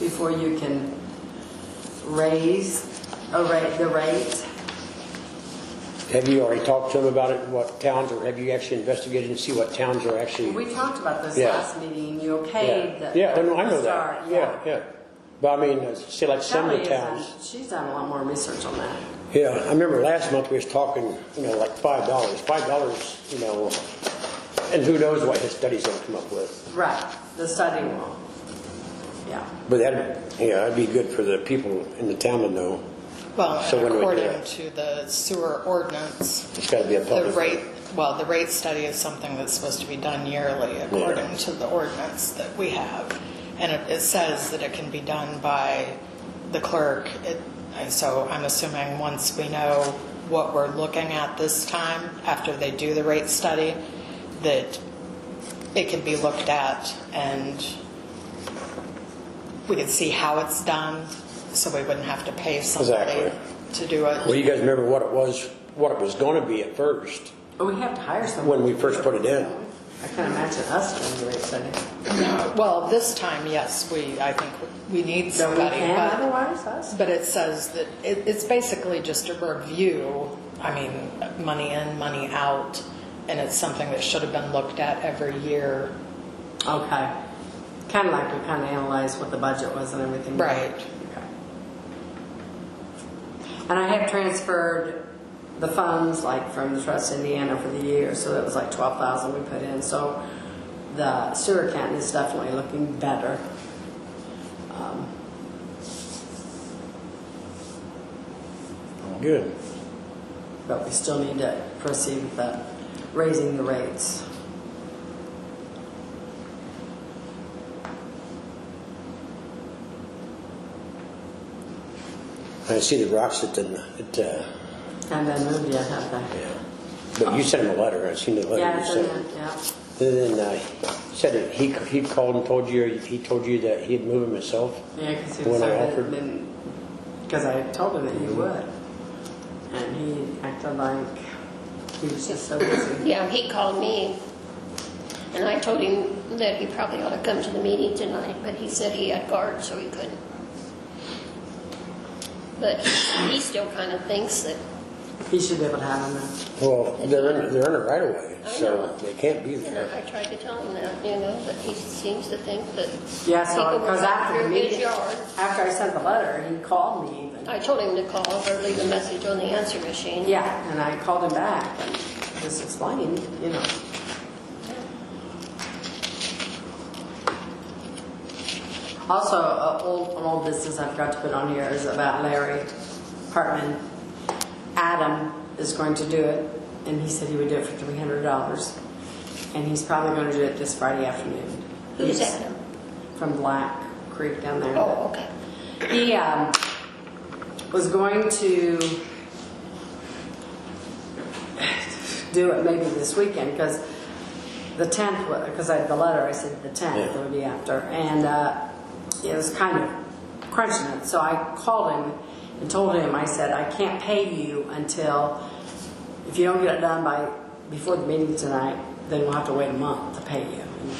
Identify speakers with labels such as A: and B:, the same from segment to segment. A: before you can raise a rate, the rate?
B: Have you already talked to them about it, what towns, or have you actually investigated and see what towns are actually?
A: We talked about this
B: Yeah.
A: last meeting, and you okayed
B: Yeah,
A: the.
B: yeah, no, I know
A: start,
B: that, yeah, yeah. But I mean, uh, say like some of
A: Kelly
B: the
A: has
B: towns.
A: done, she's done a lot more research on that.
B: Yeah, I remember last month we was talking, you know, like five dollars, five dollars, you know, and who knows what his study's gonna come up with.
A: Right, the study wall. Yeah.
B: But that, yeah, that'd be good for the people in the town to know.
C: Well,
B: So when do we do
C: according
B: it?
C: to the sewer ordinance,
B: It's gotta be a
C: the
B: public.
C: rate, well, the rate study is something that's supposed to be done yearly according to the ordinance that we have. And it, it says that it can be done by the clerk. It- And so I'm assuming once we know what we're looking at this time, after they do the rate study, that it can be looked at and we could see how it's done, so we wouldn't have to pay somebody
B: Exactly.
C: to do it.
B: Well, you guys remember what it was, what it was gonna be at first,
A: But we have to hire someone.
B: when we first put it in.
A: I can imagine us doing the rate study.
C: Well, this time, yes, we, I think we need
A: So we
C: somebody,
A: can
C: but,
A: otherwise, us?
C: but it says that it, it's basically just a review. I mean, money in, money out, and it's something that should have been looked at every year.
A: Okay. Kind of like we kind of analyzed what the budget was and everything.
C: Right.
A: Okay. And I have transferred the funds, like from the Trust Indiana for the year, so that was like twelve thousand we put in, so the sewer account is definitely looking better. Um,
B: Good.
A: But we still need to proceed with the, raising the rates.
B: I see the rocks that didn't, that, uh,
A: And then moved yet, have they?
B: yeah. But you sent him a letter, I seen the letter
A: Yeah,
B: you
A: it's in
B: sent.
A: there, yeah.
B: Then, uh, said that he, he called and told you, he told you that he'd move him himself?
A: Yeah, because he
B: The
A: was
B: one I
A: so
B: offered?
A: been, because I told him that he would. And he acted like he was just so busy.
D: Yeah, um, he called me, and I told him that he probably ought to come to the meeting tonight, but he said he had guard, so he couldn't. But he still kind of thinks that,
A: He should be able to have him now.
B: Well, they're in, they're in a right of way,
D: I
B: so
D: know.
B: they can't be
D: you know, I
B: there.
D: tried to tell him that, you know, but he seems to think that.
A: Yeah, so,
D: people will
A: because
D: walk
A: after the
D: through his
A: meeting,
D: yard.
A: after I sent the letter, he called me even.
D: I told him to call or leave a message on the answer machine.
A: Yeah, and I called him back and just explained, you know. Also, a old, an old business I forgot to put on here is about Larry Hartman. Adam is going to do it, and he said he would do it for three hundred dollars. And he's probably gonna do it this Friday afternoon.
D: Who's
A: He's
D: Adam?
A: From Black Creek down there.
D: Oh, okay.
A: He um, was going to do it maybe this weekend because the 10th, because I had the letter, I said the 10th, it would be after. And uh, it was kind of crunching it. So I called him and told him, I said, I can't pay you until, if you don't get it done by, before the meeting tonight, then we'll have to wait a month to pay you. And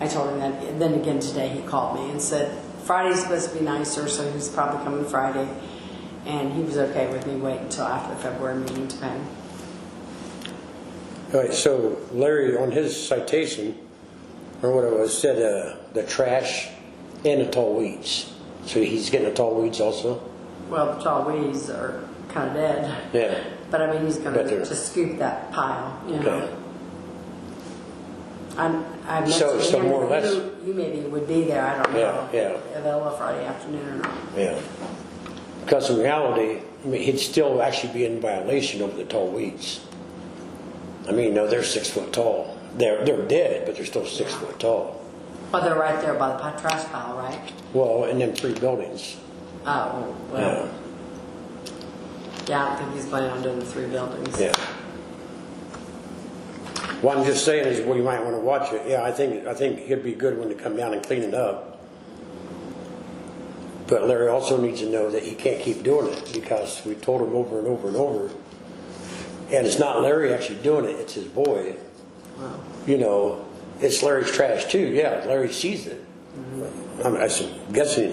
A: I told him that. And then again today, he called me and said, Friday's supposed to be nicer, so he's probably coming Friday. And he was okay with me waiting until after the February meeting to pay him.
B: All right, so Larry, on his citation, or what it was, said, uh, the trash and the tall weeds. So he's getting the tall weeds also?
A: Well, the tall weeds are kind of dead.
B: Yeah.
A: But I mean, he's going
B: But
A: to
B: they're-
A: just scoop that pile, you
B: Okay.
A: know. I'm, I mentioned
B: So- so
A: him,
B: more or less-
A: You, you maybe would be there. I don't
B: Yeah,
A: know.
B: yeah.
A: Available Friday afternoon or not.
B: Yeah. Because in reality, I mean, he'd still actually be in violation over the tall weeds. I mean, no, they're six foot tall. They're, they're dead, but they're still six foot tall.
A: Well, they're right there by the pi- trash pile, right?
B: Well, and then three buildings.
A: Oh, well. Yeah, I don't think he's planning on doing the three buildings.
B: Yeah. What I'm just saying is, well, you might want to watch it. Yeah, I think, I think it'd be a good one to come down and clean it up. But Larry also needs to know that he can't keep doing it because we told him over and over and over. And it's not Larry actually doing it, it's his boy. You know, it's Larry's trash too, yeah, Larry sees it. I'm I'm guessing he